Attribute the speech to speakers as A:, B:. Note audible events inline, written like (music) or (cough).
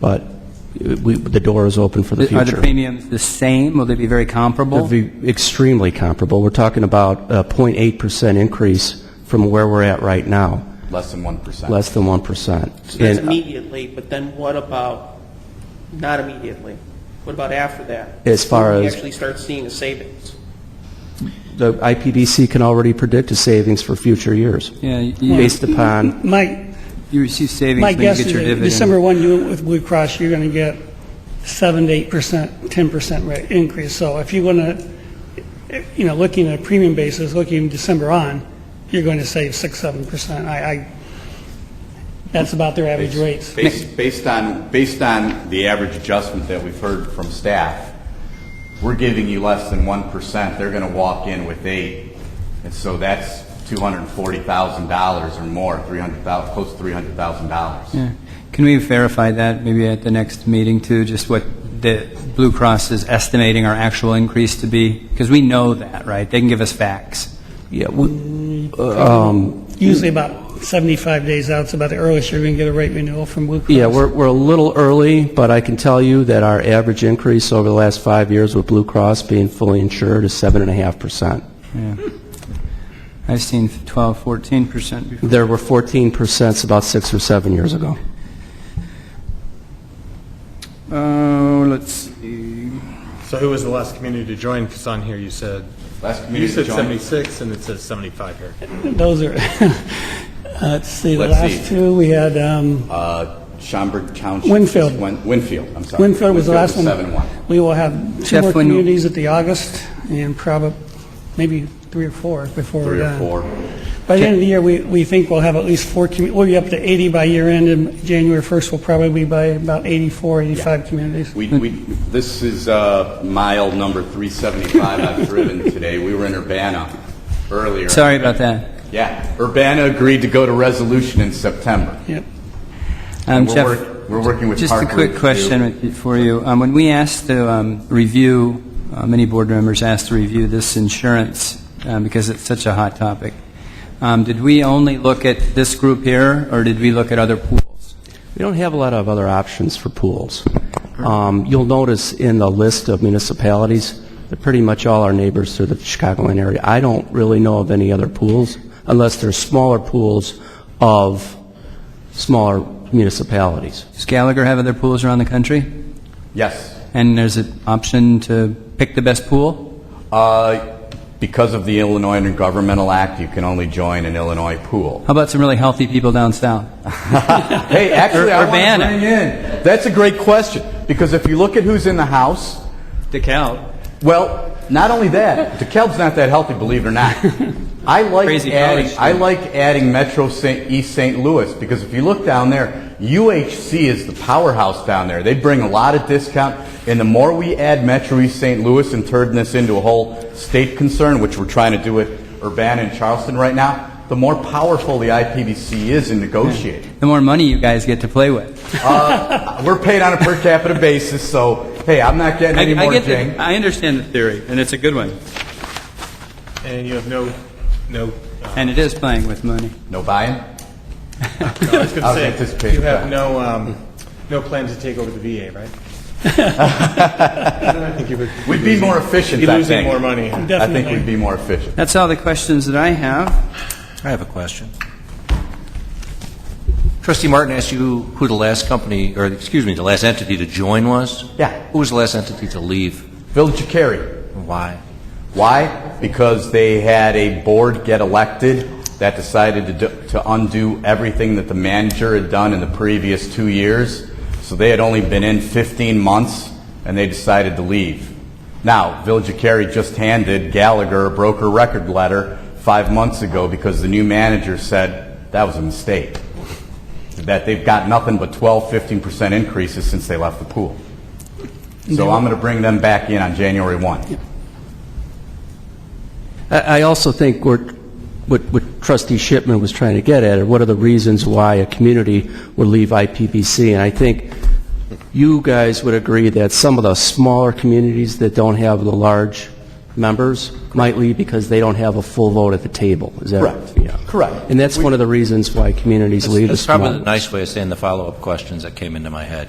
A: but we, the door is open for the
B: Are the
A: future.
B: premiums the same? Will they be very comparable?
A: It'd be extremely comparable. We're talking about a 0.8% increase from where we're at right now,
C: Less than 1%.
A: less than 1%.
D: That's
A: And uh,
D: immediately, but then what about, not immediately? What about after that?
A: As far
D: When we
A: as-
D: actually start seeing a savings?
A: the IPBC can already predict a savings for future years,
B: Yeah, you,
A: based upon,
E: My,
B: you receive savings
E: my
B: when you
E: guess
B: get
E: is
B: your
E: that
B: dividend.
E: December 1, you, with Blue Cross, you're going to get 7 to 8 percent, 10 percent rate increase. So if you want to, you know, looking at a premium basis, looking December on, you're going to save 6, 7 percent. I, I, that's about their average rates.
C: Based based on, based on the average adjustment that we've heard from staff, we're giving you less than 1%. They're going to walk in with eight. And so that's $240,000 or more, 300,000, close to $300,000.
B: Yeah. Can we verify that maybe at the next meeting too, just what the Blue Cross is estimating our actual increase to be? Because we know that, right? They can give us facts.
A: yeah, we-
E: Usually about 75 days out, it's about the earliest you're going to get a rate renewal from Blue Cross.
A: yeah, we're, we're a little early, but I can tell you that our average increase over the last five years with Blue Cross being fully insured is 7.5%.
B: I've seen 12, 14 percent before.
A: There were 14% about six or seven years ago.
B: Oh, let's see.
F: So who was the last community to join? Because on here you said,
C: Last
F: you
C: community to
F: said
C: join.
F: 76 and it says 75 here.
E: Those are, (laughs) uh, let's see, the
C: Let's
E: last
C: see.
E: two, we had, um,
C: Uh, Schaumburg Township.
E: Winfield.
C: just went- Winfield, I'm sorry.
E: Winfield was the last one.
C: Seven one.
E: We will have two
B: Jeff,
E: more
B: when-
E: communities at the August, and probably, maybe three or four before we're
C: Three or
E: done.
C: four.
E: By the end of the year, we, we think we'll have at least four, commu- we'll be up to 80 by year end, and January 1st, we'll probably be by about 84, 85 communities.
C: We, we, this is uh, mile number 375 I've driven today. We were in Urbana earlier.
B: Sorry about that.
C: Yeah, Urbana agreed to go to resolution in September.
E: Yep.
B: Um,
C: And we're
B: Jeff,
C: work- we're working with
B: Just a
C: Park
B: quick
C: Group,
B: question for you. Um, When we asked to um, review, uh, many board members asked to review this insurance um, because it's such a hot topic, um, did we only look at this group here, or did we look at other pools?
A: We don't have a lot of other options for pools. Um, You'll notice in the list of municipalities, they're pretty much all our neighbors through the Chicagoland area. I don't really know of any other pools, unless they're smaller pools of smaller municipalities.
B: Does Gallagher have other pools around the country?
C: Yes.
B: And there's an option to pick the best pool?
C: Uh, Because of the Illinois Intergovernmental Act, you can only join an Illinois pool.
B: (laughs) How about some really healthy people down (laughs) south?
C: Hey, actually, I want
B: Urbana.
C: to bring in, that's a great question, because if you look at who's in the House,
B: DeKalb.
C: Well, not only that, DeKalb's not that healthy, believe it or
B: (laughs)
C: not. I like
B: Crazy
C: adding,
B: college
C: I like adding Metro St. East St. Louis because if you look down there, UHC is the powerhouse down there. They bring a lot of discount, and the more we add Metro East St. Louis and turn this into a whole state concern, which we're trying to do with Urbana and Charleston right now, the more powerful the IPVC is in negotiating.
B: The more money you guys get to play with.
C: Uh, we're paid on a per capita basis, so hey, I'm not getting any more
B: get the-
C: jing.
B: I understand the theory, and it's a good one.
F: And you have no, no, uh,
B: And it is playing with money.
C: No buy-in.
F: I was
C: I was
F: going to say,
C: anticipating
F: you have
C: that.
F: no, um, no plan to take over the VA, right? I think you would-
C: We'd be more efficient,
F: You'd be
C: I
F: losing
C: think.
F: more money.
C: I think we'd be more efficient.
B: That's all the questions that I have.
G: I have a question. Trustee Martin asked you who the last company, or excuse me, the last entity to join was?
C: Yeah.
G: Who was the last entity to leave?
C: Village of Cary.
G: and Why?
C: Why? Because they had a board get elected that decided to, do, to undo everything that the manager had done in the previous two years. So they had only been in 15 months, and they decided to leave. Now, Village of Cary just handed Gallagher a broker record letter five months ago because the new manager said that was a mistake. That they've got nothing but 12, 15% increases since they left the pool. So I'm going to bring them back in on January 1.
A: I I also think we're- what what trustee Shipman was trying to get at, are what are the reasons why a community would leave IPBC? And I think you guys would agree that some of the smaller communities that don't have the large members might leave because they don't have a full vote at the table. Is that
C: Correct.
A: Yeah.
C: Correct.
A: And that's one of the reasons why communities leave the
G: That's
A: small...
G: probably the nice way of saying the follow-up questions that came into my head.